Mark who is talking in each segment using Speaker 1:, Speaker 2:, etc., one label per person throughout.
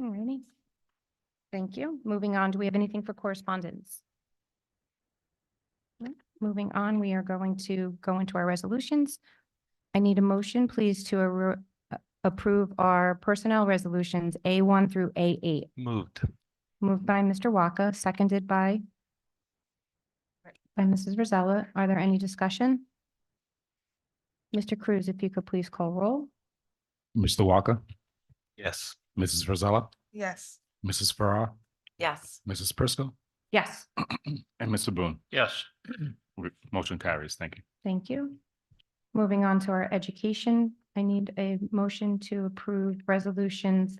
Speaker 1: Alrighty. Thank you. Moving on, do we have anything for correspondence? No. Moving on, we are going to go into our resolutions. I need a motion, please, to arro- uh, approve our personnel resolutions A one through A eight.
Speaker 2: Moved.
Speaker 1: Moved by Mr. Waka, seconded by by Mrs. Rosella. Are there any discussion? Mr. Cruz, if you could please call roll.
Speaker 3: Mr. Walker,
Speaker 2: Yes.
Speaker 3: Mrs. Rosella,
Speaker 4: Yes.
Speaker 3: Mrs. Farrar,
Speaker 4: Yes.
Speaker 3: Mrs. Prisco,
Speaker 1: Yes.
Speaker 3: and Mr. Boone.
Speaker 2: Yes.
Speaker 3: Re- Motion carries. Thank you.
Speaker 1: Thank you. Moving on to our education, I need a motion to approve resolutions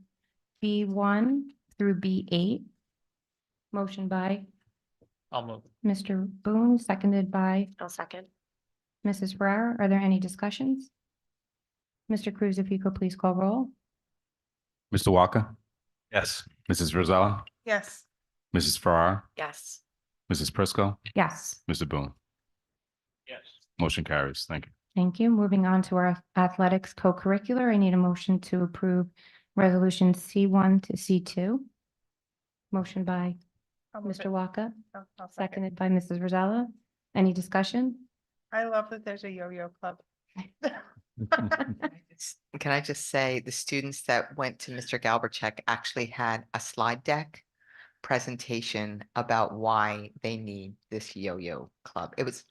Speaker 1: B one through B eight. Motion by
Speaker 2: I'll move.
Speaker 1: Mr. Boone, seconded by
Speaker 4: I'll second.
Speaker 1: Mrs. Ferrara. Are there any discussions? Mr. Cruz, if you could please call roll.
Speaker 3: Mr. Walker,
Speaker 2: Yes.
Speaker 3: Mrs. Rosella,
Speaker 4: Yes.
Speaker 3: Mrs. Farrar,
Speaker 4: Yes.
Speaker 3: Mrs. Prisco,
Speaker 1: Yes,
Speaker 3: Mr. Boone.
Speaker 2: Yes.
Speaker 3: Motion carries. Thank you.
Speaker 1: thank you. Moving on to our athletics co-curricular, I need a motion to approve resolutions C one to C two. Motion by Mr. Waka. Seconded by Mrs. Rosella. Any discussion?
Speaker 4: I love that there's a yo-yo club.
Speaker 5: Can I just say, the students that went to Mr. Galbercheck actually had a slide deck presentation about why they need this yo-yo club. It was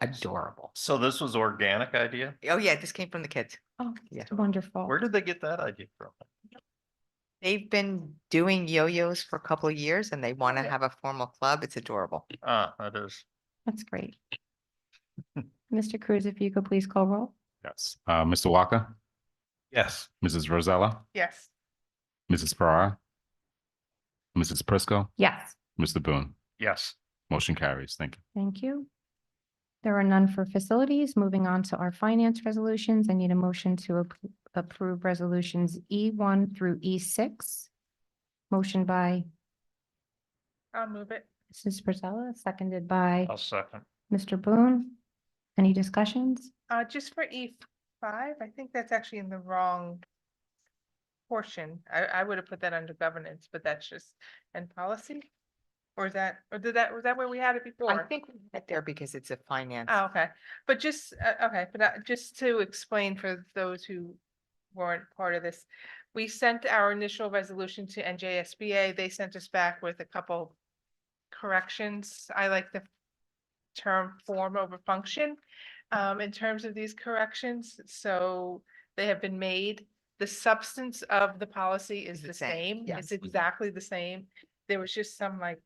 Speaker 5: adorable.
Speaker 2: So this was organic idea?
Speaker 5: Oh, yeah, this came from the kids.
Speaker 1: Oh,
Speaker 5: Yeah.
Speaker 1: wonderful.
Speaker 2: Where did they get that idea from?
Speaker 5: They've been doing yo-yos for a couple of years and they want to
Speaker 4: Yeah.
Speaker 5: have a formal club. It's adorable.
Speaker 2: Ah, that is.
Speaker 1: That's great. Mr. Cruz, if you could please call roll.
Speaker 3: Yes. Uh, Mr. Walker,
Speaker 2: Yes.
Speaker 3: Mrs. Rosella,
Speaker 4: Yes.
Speaker 3: Mrs. Farrar, Mrs. Prisco,
Speaker 1: Yes,
Speaker 3: Mr. Boone.
Speaker 2: Yes.
Speaker 3: Motion carries. Thank you.
Speaker 1: thank you. There are none for facilities. Moving on to our finance resolutions, I need a motion to ap- approve resolutions E one through E six. Motion by
Speaker 4: I'll move it.
Speaker 1: Mrs. Rosella, seconded by
Speaker 2: I'll second.
Speaker 1: Mr. Boone. Any discussions?
Speaker 4: Uh, just for E five, I think that's actually in the wrong portion. I, I would have put that under governance, but that's just, and policy? Or is that, or did that, was that where we had it before?
Speaker 5: I think we met there because it's a finance.
Speaker 4: Oh, okay, but just, uh, okay, but uh, just to explain for those who weren't part of this. We sent our initial resolution to NJSBA. They sent us back with a couple corrections. I like the term form over function um, in terms of these corrections, so they have been made. The substance of the policy is the same. It's
Speaker 5: yes.
Speaker 4: exactly the same. There was just some like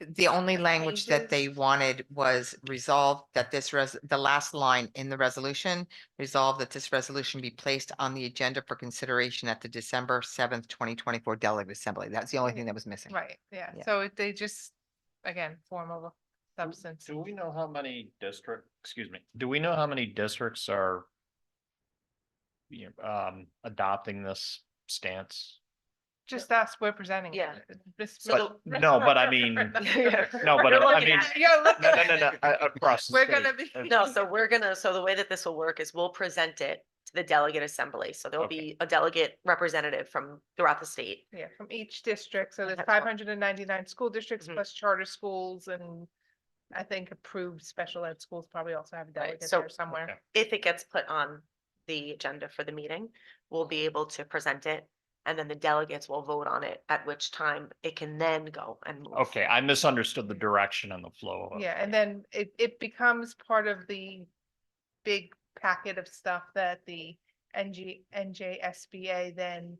Speaker 5: The only language that they
Speaker 4: changes?
Speaker 5: wanted was resolved that this res, the last line in the resolution, resolved that this resolution be placed on the agenda for consideration at the December seventh, twenty twenty-four delegate assembly. That's the only thing that was missing.
Speaker 4: Right, yeah,
Speaker 5: Yeah.
Speaker 4: so it- they just, again, form over substance.
Speaker 2: Do we know how many district, excuse me, do we know how many districts are you know, um, adopting this stance?
Speaker 4: Just us, we're presenting.
Speaker 6: Yeah.
Speaker 4: it. This-
Speaker 2: But- no, but I mean-
Speaker 4: No,
Speaker 2: No, but I- I mean,
Speaker 4: You're looking
Speaker 2: no, no,
Speaker 4: at
Speaker 2: no, no,
Speaker 4: it.
Speaker 2: I- across the
Speaker 4: We're
Speaker 2: state.
Speaker 4: gonna be.
Speaker 6: No, so we're gonna, so the way that this will work is we'll present it to the delegate assembly. So there'll
Speaker 2: Okay.
Speaker 6: be a delegate representative from throughout the state.
Speaker 4: Yeah, from each district, so there's
Speaker 6: That's all.
Speaker 4: five hundred and ninety-nine school districts
Speaker 6: Mhm.
Speaker 4: plus charter schools and I think approved special ed schools probably also have a
Speaker 6: Right,
Speaker 4: delegate
Speaker 6: so-
Speaker 4: there somewhere.
Speaker 2: Okay.
Speaker 6: If it gets put on the agenda for the meeting, we'll be able to present it. And then the delegates will vote on it, at which time it can then go and. move.
Speaker 2: Okay, I misunderstood the direction and the flow of it.
Speaker 4: Yeah, and then it, it becomes part of the big packet of stuff that the NG, NJSBA then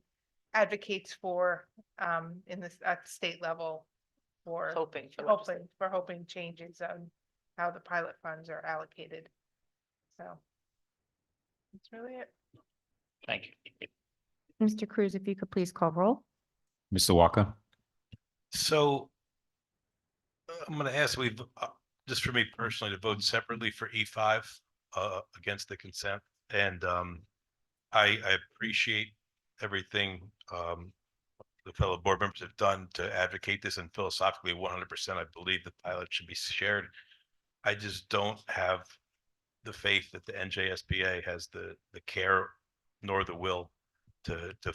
Speaker 4: advocates for, um, in this, at the state level. For
Speaker 6: Hoping. for
Speaker 2: Oh,
Speaker 6: legisla-
Speaker 4: hoping, for hoping changes on how the pilot funds are allocated. So. That's really it.
Speaker 2: Thank you.
Speaker 1: Mr. Cruz, if you could please call roll.
Speaker 3: Mr. Walker,
Speaker 7: So uh, I'm going to ask, we've, uh, just for me personally, to vote separately for E five uh, against the consent. And um, I, I appreciate everything um, the fellow board members have done to advocate this and philosophically one hundred percent, I believe the pilot should be shared. I just don't have the faith that the NJSBA has the, the care nor the will to, to